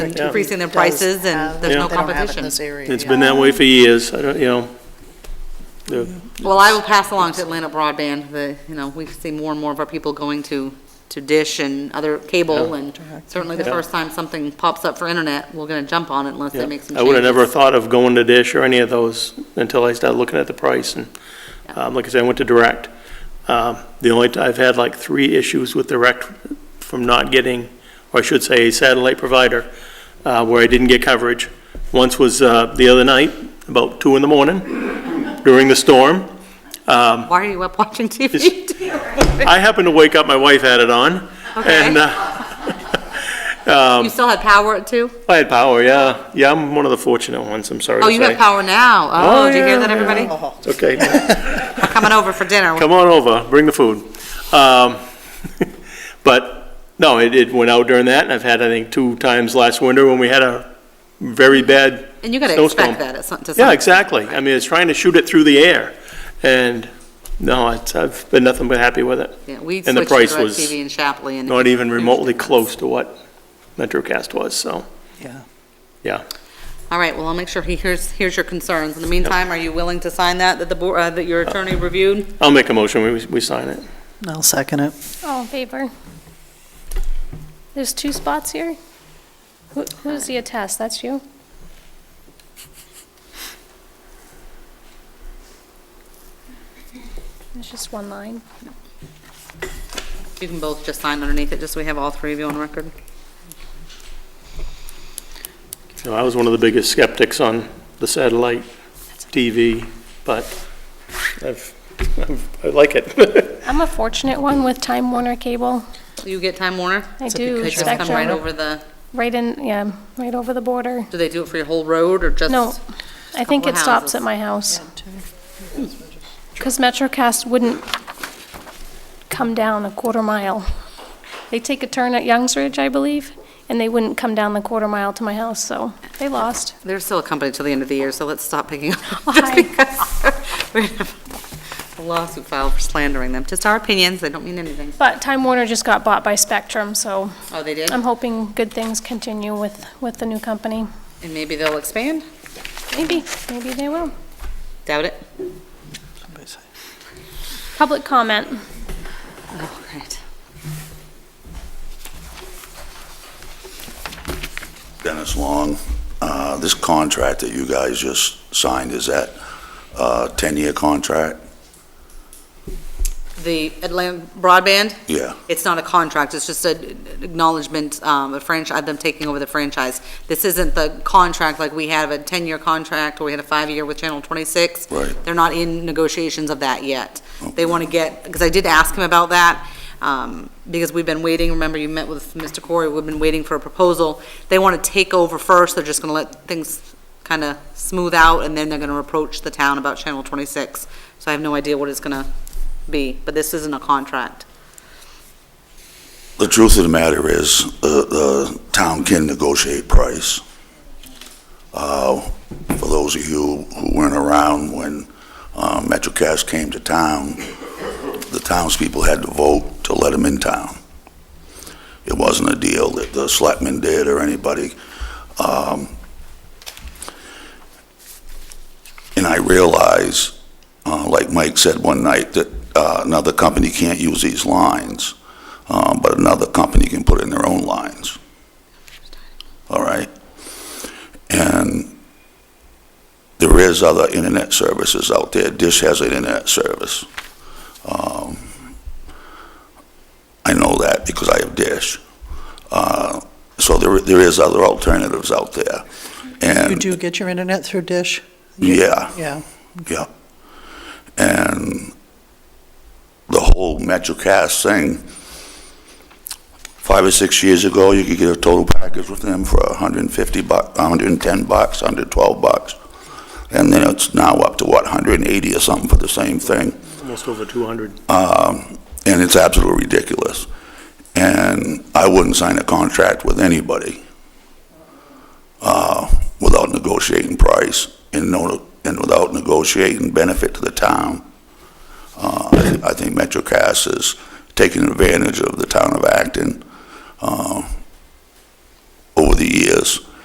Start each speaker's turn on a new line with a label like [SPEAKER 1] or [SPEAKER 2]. [SPEAKER 1] Yeah.
[SPEAKER 2] increasing their prices and there's
[SPEAKER 1] Yeah.
[SPEAKER 2] no
[SPEAKER 1] They don't have it in
[SPEAKER 2] competition.
[SPEAKER 3] this area.
[SPEAKER 1] It's been that way for years, I don't, you know. The-
[SPEAKER 2] Well, I will pass along to Atlanta Broadband, the, you know, we see more and more of our people going to, to Dish and other cable, and certainly the
[SPEAKER 1] Yeah.
[SPEAKER 2] first time something pops up for internet, we're gonna jump on it unless
[SPEAKER 1] yeah.
[SPEAKER 2] they make some
[SPEAKER 1] I would have never
[SPEAKER 2] changes.
[SPEAKER 1] thought of going to Dish or any of those until I started looking at the price, and, um, like I said, I went to Direct. Um, The only, t- I've had like three issues with Direct from not getting, or I should say, a satellite provider, uh, where I didn't get coverage. Once was uh, the other night, about two in the morning, during the storm.
[SPEAKER 2] Why are you up watching TV?
[SPEAKER 1] I happened to wake up, my wife had it on, and,
[SPEAKER 2] Okay.
[SPEAKER 1] uh, um,
[SPEAKER 2] You still had power Oh, at two?
[SPEAKER 1] I had power, yeah. Yeah, I'm one of the fortunate ones, I'm sorry to
[SPEAKER 2] Oh,
[SPEAKER 1] say.
[SPEAKER 2] you have power now. Oh,
[SPEAKER 1] Oh,
[SPEAKER 2] do you
[SPEAKER 1] yeah,
[SPEAKER 2] hear that,
[SPEAKER 1] yeah.
[SPEAKER 2] everybody?
[SPEAKER 1] It's okay.
[SPEAKER 2] We're coming over for dinner.
[SPEAKER 1] Come on over, bring the food. Um, But, no, it, it went out during that, and I've had, I think, two times last winter when we had a very bad
[SPEAKER 2] And you gotta
[SPEAKER 1] snowstorm.
[SPEAKER 2] expect that at some, to some.
[SPEAKER 1] Yeah, exactly. I mean, it's trying to shoot it through the air, and, no, it's, I've been nothing but happy with it.
[SPEAKER 2] Yeah, We
[SPEAKER 1] And the
[SPEAKER 2] switched to
[SPEAKER 1] price was
[SPEAKER 2] DirecTV in Shapley and.
[SPEAKER 1] Not even remotely close to what MetroCast was, so,
[SPEAKER 3] Yeah.
[SPEAKER 1] yeah.
[SPEAKER 2] All right, well, I'll make sure he hears, hears your concerns. In the meantime, are you willing to sign that, that the, board- uh, that your attorney reviewed?
[SPEAKER 1] I'll make a motion, we, we sign it.
[SPEAKER 3] I'll second it.
[SPEAKER 4] All in favor? Oh, There's two spots here? Who- Who's the attest? That's you? It's just one line.
[SPEAKER 2] You can both just sign underneath it, just so we have all three of you on record.
[SPEAKER 1] You know, I was one of the biggest skeptics on the satellite TV, but I've, I've- I like it.
[SPEAKER 4] I'm a fortunate one with Time Warner Cable.
[SPEAKER 2] You get Time Warner?
[SPEAKER 4] I
[SPEAKER 3] It's a
[SPEAKER 4] do
[SPEAKER 2] They just come right
[SPEAKER 4] Spectrum,
[SPEAKER 2] over the,
[SPEAKER 4] right in, yeah, right over the border.
[SPEAKER 2] do they do it for your whole road or just?
[SPEAKER 4] No, I think
[SPEAKER 2] couple
[SPEAKER 4] it stops
[SPEAKER 2] houses.
[SPEAKER 4] at my house. Because MetroCast wouldn't come down a quarter mile. They take a turn at Youngs Ridge, I believe, and they wouldn't come down the quarter mile to my house, so they lost.
[SPEAKER 2] They're still a company till the end of the year, so let's stop picking on them. just
[SPEAKER 4] Why?
[SPEAKER 2] because we have A lawsuit filed for slandering them. Just our opinions, they don't mean anything.
[SPEAKER 4] But Time Warner just got bought by Spectrum, so
[SPEAKER 2] Oh, they did?
[SPEAKER 4] I'm hoping good things continue with, with the new company.
[SPEAKER 2] And maybe they'll expand?
[SPEAKER 4] Maybe, maybe they will.
[SPEAKER 2] Doubt it.
[SPEAKER 4] Public comment.
[SPEAKER 2] Oh, great.
[SPEAKER 5] Dennis Long, uh, this contract that you guys just signed, is that a 10-year contract?
[SPEAKER 2] The Atlanta Broadband?
[SPEAKER 5] Yeah,
[SPEAKER 2] It's not a contract, it's just an acknowledgement, um, a franchise, them taking over the franchise. This isn't the contract, like we have a 10-year contract, or we had a five-year with Channel 26.
[SPEAKER 5] Right.
[SPEAKER 2] They're not in negotiations of that yet. They want to get, because I did ask him about that, um, because we've been waiting, remember you met with Mr. Corey, we've been waiting for a proposal. They want to take over first, they're just going to let things kind of smooth out, and then they're going to approach the town about Channel 26. So I have no idea what it's going to be, but this isn't a contract.
[SPEAKER 5] the truth of the matter is, uh, the town can negotiate price. Uh, For those of you who weren't around when uh, MetroCast came to town, the townspeople had to vote to let them in town. It wasn't a deal that the selectmen did or anybody. Um, And I realize, uh, like Mike said one night, that uh, another company can't use these lines, uh, but another company can put in their own lines. All right? And there is other internet services out there. Dish has an internet service. Um, I know that because I have Dish. Uh, So there, there is other alternatives out there.
[SPEAKER 3] You
[SPEAKER 5] And,
[SPEAKER 3] do get your internet through Dish?
[SPEAKER 5] yeah.
[SPEAKER 3] Yeah.
[SPEAKER 5] Yeah. And the whole MetroCast thing, five or six years ago, you could get a total package with them for 150 bucks, 110 bucks, 112 bucks. And then it's now up to what, 180 or something for the same thing?
[SPEAKER 1] Almost over 200.
[SPEAKER 5] Um, And it's absolutely ridiculous. And I wouldn't sign a contract with anybody uh, without negotiating price and no, and without negotiating benefit to the town. Uh, I thi- I think MetroCast is taking advantage of the town of Acton uh, over the the years.